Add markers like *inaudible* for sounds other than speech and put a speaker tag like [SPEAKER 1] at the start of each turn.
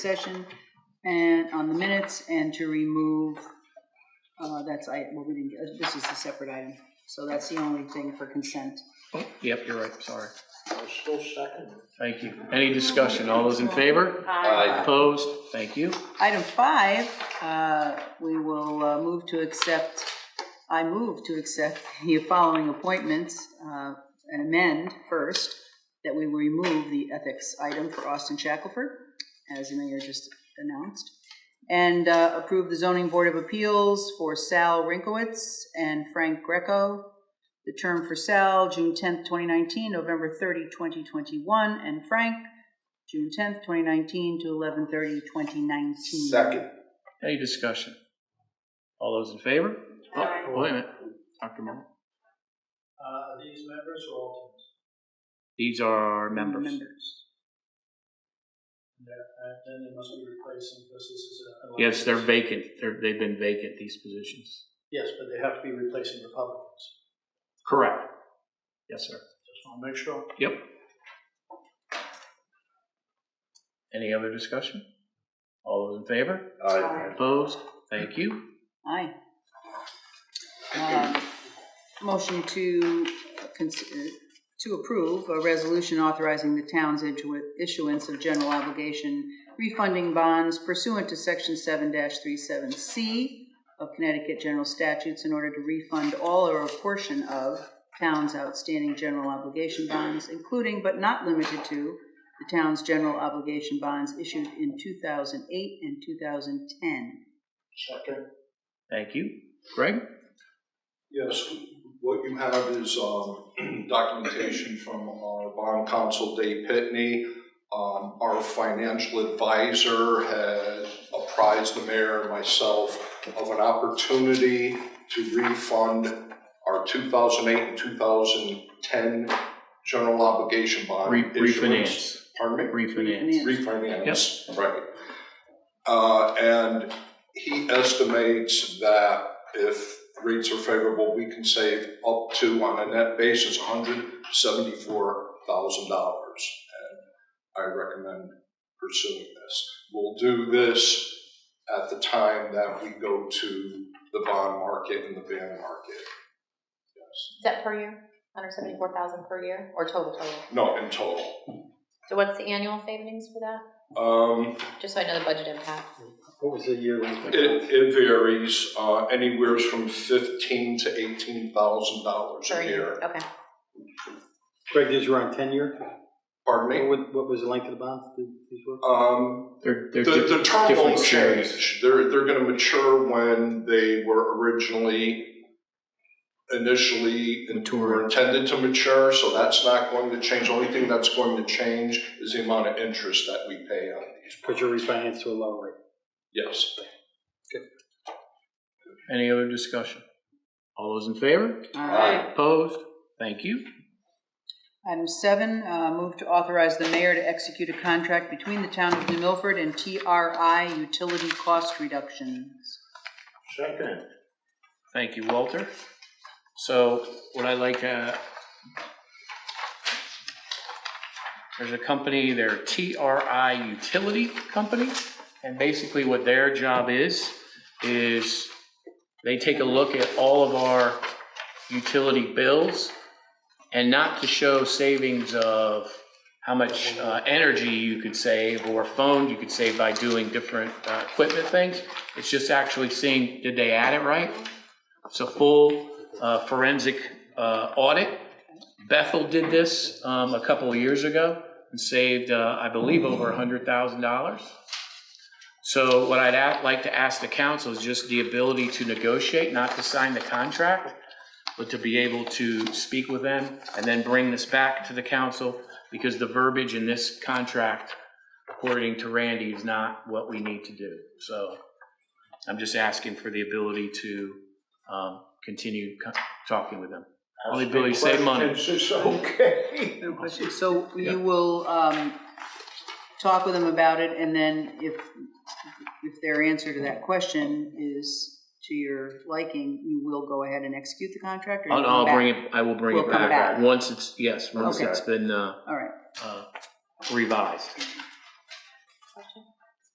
[SPEAKER 1] session and on the minutes and to remove, uh, that's, I, well, we didn't, get- this is a separate item. So that's the only thing for consent.
[SPEAKER 2] Oh, Yep, you're right, sorry.
[SPEAKER 3] I still second it.
[SPEAKER 2] Thank you. Any discussion? All those in favor?
[SPEAKER 3] Aye.
[SPEAKER 2] Opposed? Thank you.
[SPEAKER 1] Item five, uh, we will uh, move to accept, I move to accept the following appointments uh, and amend first, that we remove the ethics item for Austin Shackelford, as the mayor just announced, and uh, approve the zoning board of appeals for Sal Rinkowitz and Frank Greco. The term for Sal, June 10th, 2019, November 30, 2021, and Frank, June 10th, 2019 to 11/30, 2019.
[SPEAKER 3] Second.
[SPEAKER 2] Any discussion? All those in favor? Oh,
[SPEAKER 4] Aye.
[SPEAKER 2] Wait a minute, Dr. Moore.
[SPEAKER 3] Uh, these members or alternates?
[SPEAKER 2] These are our members.
[SPEAKER 3] Yeah, and uh, then they must be replacing, because this is a.
[SPEAKER 2] Yes, they're vacant. They're, they've been vacant, these positions.
[SPEAKER 3] Yes, but they have to be replacing Republicans.
[SPEAKER 2] Correct. Yes, sir.
[SPEAKER 3] Just want to make sure.
[SPEAKER 2] Yep. Any other discussion? All those in favor?
[SPEAKER 4] Aye.
[SPEAKER 2] Opposed? Thank you.
[SPEAKER 1] Aye. Um, Motion to, cons- uh, to approve a resolution authorizing the town's issu- issuance of general obligation refunding bonds pursuant to Section 7-37C of Connecticut General Statutes in order to refund all or a portion of town's outstanding general obligation bonds, including but not limited to the town's general obligation bonds issued in 2008 and 2010.
[SPEAKER 3] Second.
[SPEAKER 2] Thank you. Greg?
[SPEAKER 5] Yes, what you have is um, *clears throat* documentation from our bond counsel, Dave Pitney. Um, Our financial advisor had apprised the mayor and myself of an opportunity to refund our 2008 and 2010 general obligation bond
[SPEAKER 2] Re-
[SPEAKER 5] issuance.
[SPEAKER 2] Refinance.
[SPEAKER 5] Pardon me?
[SPEAKER 2] Refinance.
[SPEAKER 5] refinance. Right. Uh, and he estimates that if rates are favorable, we can save up to, on a net basis, hundred seventy-four thousand dollars. And I recommend pursuing this. We'll do this at the time that we go to the bond market and the bond market. Yes.
[SPEAKER 4] Is that per year? Hundred seventy-four thousand per year or total total?
[SPEAKER 5] No, in total.
[SPEAKER 4] So what's the annual savings for that?
[SPEAKER 5] Um,
[SPEAKER 4] Just so I know the budget impact.
[SPEAKER 3] What was the year?
[SPEAKER 5] It, it varies, uh, anywhere from fifteen to eighteen thousand dollars
[SPEAKER 4] per
[SPEAKER 5] a year.
[SPEAKER 4] Okay.
[SPEAKER 3] Greg, these were on tenure?
[SPEAKER 5] Pardon me?
[SPEAKER 3] What, what was the length of the bonds? These were?
[SPEAKER 5] Um,
[SPEAKER 2] They're,
[SPEAKER 5] the,
[SPEAKER 2] they're di-
[SPEAKER 5] the term
[SPEAKER 2] different
[SPEAKER 5] won't
[SPEAKER 2] series.
[SPEAKER 5] change. They're, they're gonna mature when they were originally initially in-
[SPEAKER 2] Mature.
[SPEAKER 5] were intended to mature, so that's not going to change. Only thing that's going to change is the amount of interest that we pay on these.
[SPEAKER 3] But you refinanced to a lower rate.
[SPEAKER 5] Yes.
[SPEAKER 2] Any other discussion? All those in favor?
[SPEAKER 5] Aye.
[SPEAKER 2] Opposed? Thank you.
[SPEAKER 1] Item seven, uh, move to authorize the mayor to execute a contract between the town of New Milford and TRI Utility Cost Reductions.
[SPEAKER 3] Second.
[SPEAKER 2] Thank you, Walter. So what I like, uh, there's a company, they're TRI Utility Company, and basically what their job is, is they take a look at all of our utility bills, and not to show savings of how much uh, energy you could save, or phone you could save by doing different uh, equipment things. It's just actually seeing, did they add it right? It's a full uh, forensic uh, audit. Bethel did this um, a couple of years ago and saved, uh, I believe, over $100,000. So what I'd a- like to ask the council is just the ability to negotiate, not to sign the contract, but to be able to speak with them and then bring this back to the council because the verbiage in this contract, according to Randy, is not what we need to do. So I'm just asking for the ability to um, continue co- talking with them. Only Billy save money.
[SPEAKER 3] It's *laughs* okay.
[SPEAKER 1] No question. So
[SPEAKER 2] Yeah.
[SPEAKER 1] you will um, talk with them about it, and then if, if their answer to that question is to your liking, you will go ahead and execute the contract? or
[SPEAKER 2] I'll,
[SPEAKER 1] you
[SPEAKER 2] I'll
[SPEAKER 1] come back?
[SPEAKER 2] bring it, I will bring
[SPEAKER 1] We'll
[SPEAKER 2] it
[SPEAKER 1] come
[SPEAKER 2] back,
[SPEAKER 1] back.
[SPEAKER 2] once it's, yes, once
[SPEAKER 1] Okay.
[SPEAKER 2] it's been uh,
[SPEAKER 1] All right.
[SPEAKER 2] uh, revised.